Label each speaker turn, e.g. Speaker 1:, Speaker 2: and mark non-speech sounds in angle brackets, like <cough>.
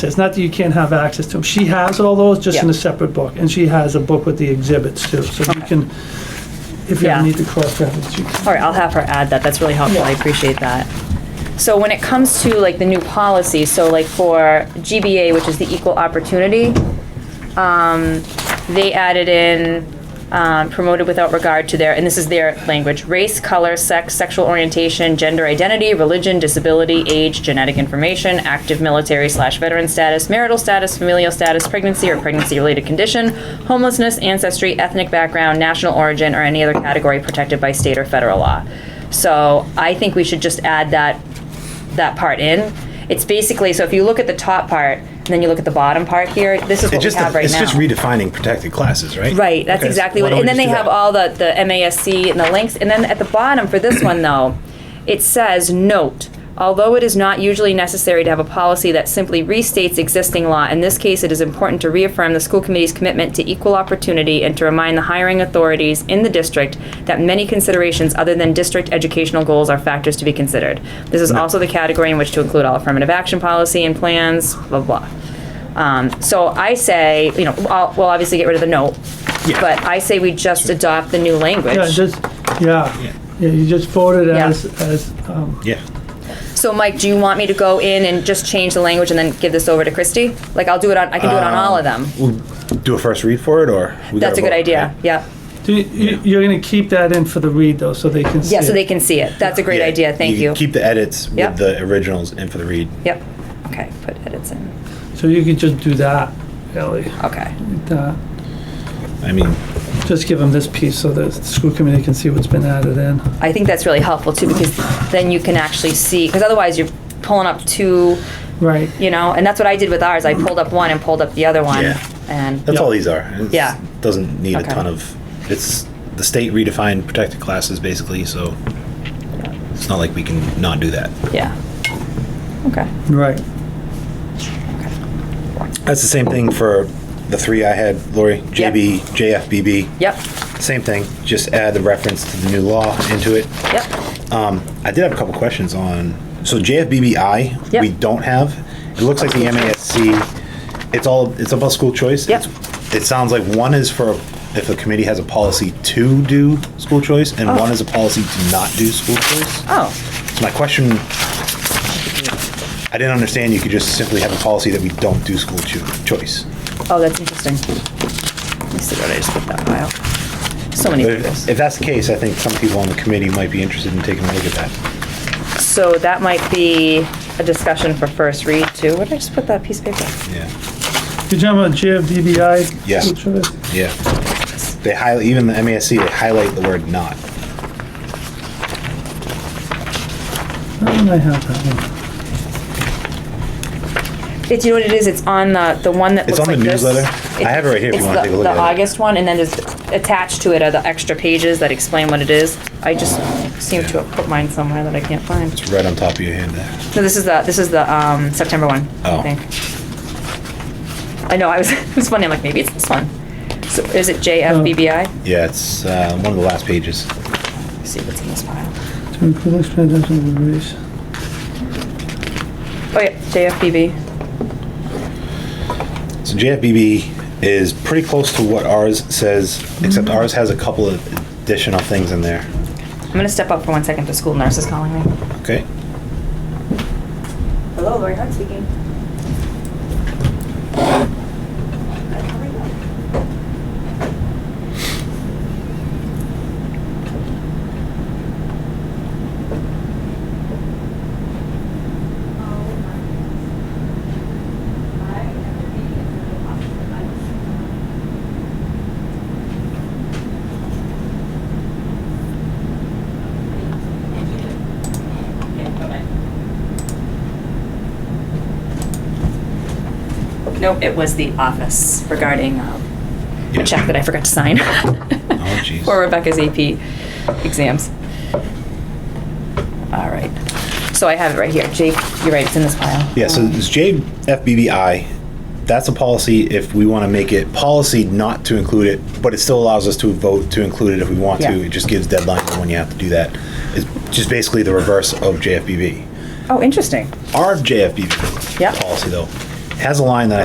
Speaker 1: It's not that you can't have access to them. She has all those, just in a
Speaker 2: Yeah.
Speaker 1: separate book, and she has a book with the exhibits too. So you can, if you
Speaker 2: Yeah.
Speaker 1: ever need to cross-reference, you can.
Speaker 2: All right, I'll have her add that, that's really helpful, I appreciate that. So when it comes to like the new policy, so like for GBA, which is the equal opportunity, um, they added in um, promoted without regard to their, and this is their language, race, color, sex, sexual orientation, gender identity, religion, disability, age, genetic information, active military slash veteran status, marital status, familial status, pregnancy or pregnancy related condition, homelessness, ancestry, ethnic background, national origin, or any other category protected by state or federal law. So I think we should just add that that part in. It's basically so if you look at the top part and then you look at the bottom part here, this is what
Speaker 3: It's just,
Speaker 2: we have right
Speaker 3: it's
Speaker 2: now.
Speaker 3: just redefining protected classes, right?
Speaker 2: Right, that's
Speaker 3: Okay, so
Speaker 2: exactly what,
Speaker 3: why don't
Speaker 2: and
Speaker 3: we
Speaker 2: then
Speaker 3: just
Speaker 2: they
Speaker 3: do
Speaker 2: have
Speaker 3: that?
Speaker 2: all the, the MASC and the links, and then at the bottom for this one though, it says, note, although it is not usually necessary to have a policy that simply restates existing law, in this case, it is important to reaffirm the school committee's commitment to equal opportunity and to remind the hiring authorities in the district that many considerations other than district educational goals are factors to be considered. This is also the category in which to include all affirmative action policy and plans, blah, blah. Um, so I say, you know, I'll, we'll obviously get rid of the note,
Speaker 3: Yeah.
Speaker 2: but I say we just adopt the new
Speaker 1: Yeah,
Speaker 2: language.
Speaker 1: just, yeah, Yeah, you just voted
Speaker 2: Yeah.
Speaker 1: as, as, um,
Speaker 3: Yeah,
Speaker 2: So Mike, do you want me to go in and just change the language and then give this over to Christie? Like I'll do it on, I can do it on all of them.
Speaker 3: we'll do a first read for it, or? we
Speaker 2: That's a
Speaker 3: gotta
Speaker 2: good
Speaker 3: vote,
Speaker 2: idea,
Speaker 3: right?
Speaker 2: yeah.
Speaker 1: do you- you're gonna keep that in for the read though, so they can see.
Speaker 2: Yeah, so
Speaker 1: it.
Speaker 2: they can see it. That's a great
Speaker 3: Yeah,
Speaker 2: idea, thank
Speaker 3: can
Speaker 2: you.
Speaker 3: Keep the edits
Speaker 2: Yep.
Speaker 3: with the originals and for the read.
Speaker 2: Yep, okay, put edits in,
Speaker 1: So you can just do that, really.
Speaker 2: okay.
Speaker 1: Uh,
Speaker 3: I mean,
Speaker 1: Just give them this piece so the school committee can see what's been added in.
Speaker 2: I think that's really helpful too, because then you can actually see, because otherwise you're pulling up two,
Speaker 1: Right.
Speaker 2: you know, and that's what I did with ours. I pulled up one and pulled up the other one.
Speaker 3: Yeah.
Speaker 2: And,
Speaker 3: that's
Speaker 1: Yep.
Speaker 3: all these are. It's-
Speaker 2: Yeah.
Speaker 3: Doesn't need a
Speaker 2: Okay.
Speaker 3: ton of, it's, the state redefined protected classes basically, so it's not like we can not do that.
Speaker 2: yeah. Okay.
Speaker 1: Right.
Speaker 3: That's the same thing for the three I had, Lori, JB, JFBB.
Speaker 2: Yep,
Speaker 3: Same thing, just add the reference to the new law into it.
Speaker 2: yep,
Speaker 3: Um, I did have a couple questions on, so JFBBI,
Speaker 2: Yep.
Speaker 3: we don't have. It looks like the MASC, it's all, it's about school choice.
Speaker 2: Yep.
Speaker 3: It's- It sounds like one is for if a committee has a policy to do school choice, and one is a policy to not do school choice.
Speaker 2: oh,
Speaker 3: So my question, I didn't understand you could just simply have a policy that we don't do school cho- choice.
Speaker 2: oh, that's interesting. Let me see what I just put that file. So many
Speaker 3: But if,
Speaker 2: photos.
Speaker 3: if that's the case, I think some people on the committee might be interested in taking a look at that.
Speaker 2: So that might be a discussion for first read too. Where did I just put that piece of paper?
Speaker 3: Yeah,
Speaker 1: You're talking about GFDBI?
Speaker 3: Yeah.
Speaker 1: Which one is-
Speaker 3: yeah. They highlight, even the MASC, they highlight the word not.
Speaker 1: Why don't Oh, I have that one?
Speaker 2: It's, you know what it is? It's on the, the one that
Speaker 3: It's
Speaker 2: looks
Speaker 3: on
Speaker 2: like
Speaker 3: the
Speaker 2: this.
Speaker 3: newsletter. I have it right here if you
Speaker 2: It's
Speaker 3: wanna
Speaker 2: the-
Speaker 3: take a look at it.
Speaker 2: The August one, and then there's attached to it are the extra pages that explain what it is. I just seem to have put mine somewhere that I can't find.
Speaker 3: It's right on top of your hand there.
Speaker 2: No, this is the, this is the, um, September one,
Speaker 3: Oh.
Speaker 2: I think. I know, I was, <laughs> it was funny, I'm like, maybe it's this one. So is it JFBBI?
Speaker 3: Yeah, it's uh, one of the last pages.
Speaker 2: Let's See what's in this file.
Speaker 1: To include expenditures and release.
Speaker 2: Oh, yeah, JFBB.
Speaker 3: So JFBB is pretty close to what ours says, except
Speaker 2: Mm-hmm.
Speaker 3: ours has a couple of additional things in there.
Speaker 2: I'm gonna step up for one second, the school nurse is calling me.
Speaker 3: Okay?
Speaker 2: Hello, Lori Hart speaking. No, it was the office regarding um, a check that I forgot to sign.
Speaker 3: Oh, jeez.
Speaker 2: <laughs> For Rebecca's AP exams. All right. So I have it right here. Jake, you're right, it's in this pile.
Speaker 3: Yeah, so it's JFBBI. That's a policy if we want to make it policy not to include it, but it still allows us to vote to include it if we want
Speaker 2: Yeah.
Speaker 3: to. It just gives deadlines on when you have to do that. It's just basically the reverse of JFBB.
Speaker 2: Oh, interesting.
Speaker 3: Our JFBB
Speaker 2: Yeah.
Speaker 3: policy, though, has a line that I